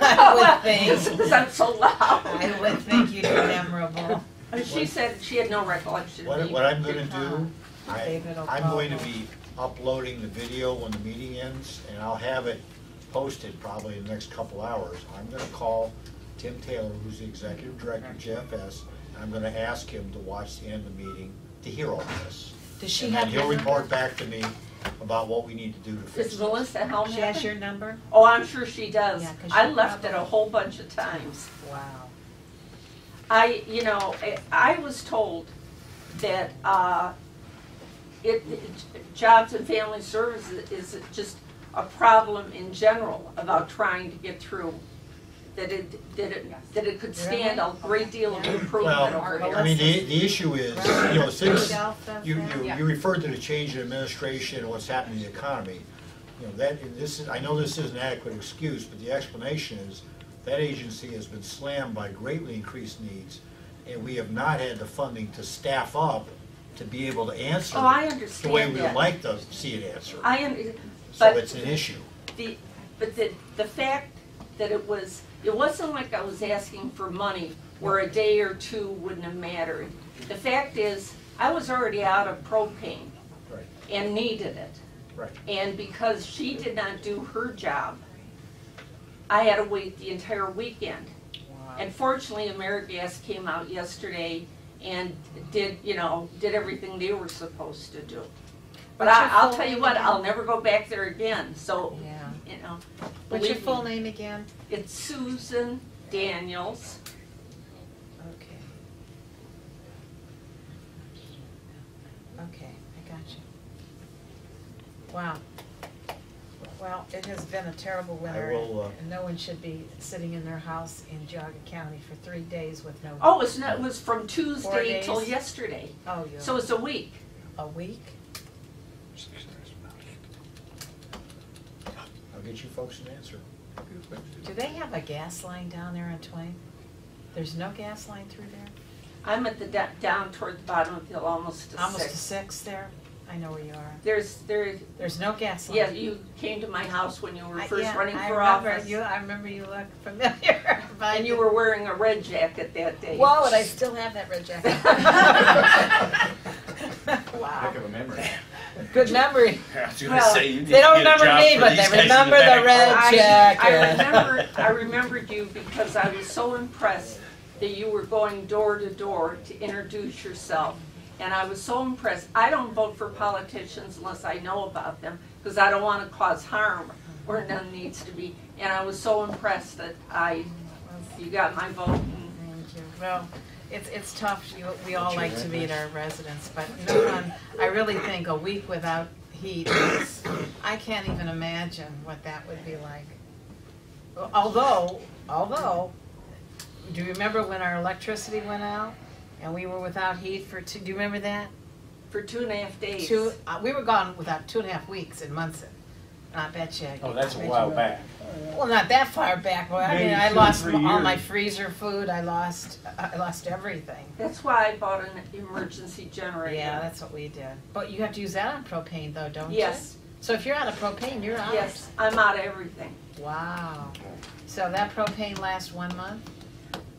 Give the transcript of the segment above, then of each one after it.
I would think, Since I'm so loud. I would think you'd be memorable. She said she had no recollection. What, He what I'm gonna did do, I, David will I'm going to probably- be uploading the video when the meeting ends, and I'll have it posted probably in the next couple hours. I'm gonna call Tim Taylor, who's the executive director of GFS, and I'm gonna ask him to watch the end of the meeting to hear all this. Does she And then have he'll your report number? back to me about what we need to do to fix Does it. Melissa Helm She have has it? your number? Oh, I'm sure she does. Yeah, 'cause I she left it a probably- whole bunch of times. Wow. I, you know, I- I was told that uh, it, it- jobs and family services is just a problem in general about trying to get through. That it, that it, that it could stand a great deal of improvement Well, over I there. mean, the, the issue is, you know, since, Yourself does You, that? you, you referred to the change in administration and what's happening in the economy. You know, that, and this is, I know this is an adequate excuse, but the explanation is that agency has been slammed by greatly increased needs, and we have not had the funding to staff up to be able to answer Oh, I the way understand we that. would like to see it answered. I am, So but it's an issue. the, but the, the fact that it was, it wasn't like I was asking for money where a day or two wouldn't have mattered. The fact is, I was already out of propane Right, and needed it. right. And because she did not do her job, I had to wait the entire weekend. And fortunately, AmeriGas came out yesterday and did, you know, did everything they were supposed to do. But What's your I, I'll full tell you name what, again? I'll never go back there again, so, Yeah. you know. What's your believe me. full name again? It's Susan Daniels. Okay. Okay, I got you. Wow. Well, it has been a terrible winter, will, uh, and no one should be sitting in their house in Geauga County for three days with no. Oh, it's not, it was from Tuesday days. till yesterday, Oh, you so it's a week. a week? I'll get you folks an answer. Do they have a gas line down there on Twain? There's no gas line through there? I'm at the, da- down toward the bottom of the hill, almost to Almost to six. six there? I know where you are. There's, there, There's no gas line. yeah, you came to my house when you were I- first yeah, running I for remember office. you- I remember you looked familiar. but I And you didn't- were wearing a red jacket that day. Whoa, and I still have that red jacket. Wow, Heck of a memory. good memory. I was gonna Well, say, you They don't need to get a remember job me, for but these they guys in the remember the back. red I- I jacket. remembered, I remembered you because I was so impressed that you were going door to door to introduce yourself. And I was so impressed. I don't vote for politicians unless I know about them because I don't want to cause harm where none needs to be. And I was so impressed that I, you got my vote. and Thank you. Well, it's, it's tough, you, we all like to meet our residents, but no one, I really think a week without heat is, I can't even imagine what that would be like. Although, although, do you remember when our electricity went out and we were without heat for two, do you remember that? For two and a half days. Two, uh, we were gone without two and a half weeks in Munson. And I bet you. Oh, that's a I bet while you- back. Well, not that far back. Well, I mean, Maybe I two or lost three all my years. freezer food. I lost, uh, I lost everything. That's why I bought an emergency generator. Yeah, that's what we did. But you have to use that on propane though, don't you? Yes, So if you're out of propane, you're out. yes, I'm out of everything. Wow. So that propane lasts one month?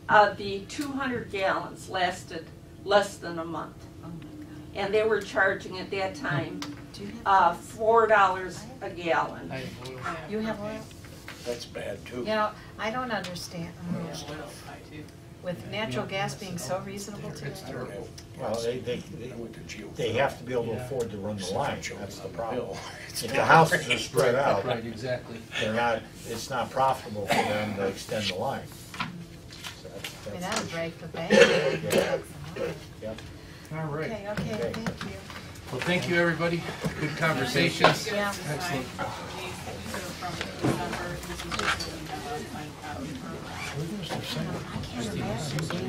Uh, the two hundred gallons lasted less than a month. And they were charging at that time, Oh, Do you have, uh, four dollars a gallon. you have oil? That's bad too. You know, I don't understand. With natural gas being so reasonable today. Well, they, they, they- they have to be able to afford to run the line, that's the problem. If the houses are spread out, Right, exactly. they're not, it's not profitable for them to extend the line. So that's- I mean, that's that'll the break the bank. Yep. All right. Okay, okay, thank you. Well, thank you, everybody. Good conversations. Yeah. Excellent. Excellent.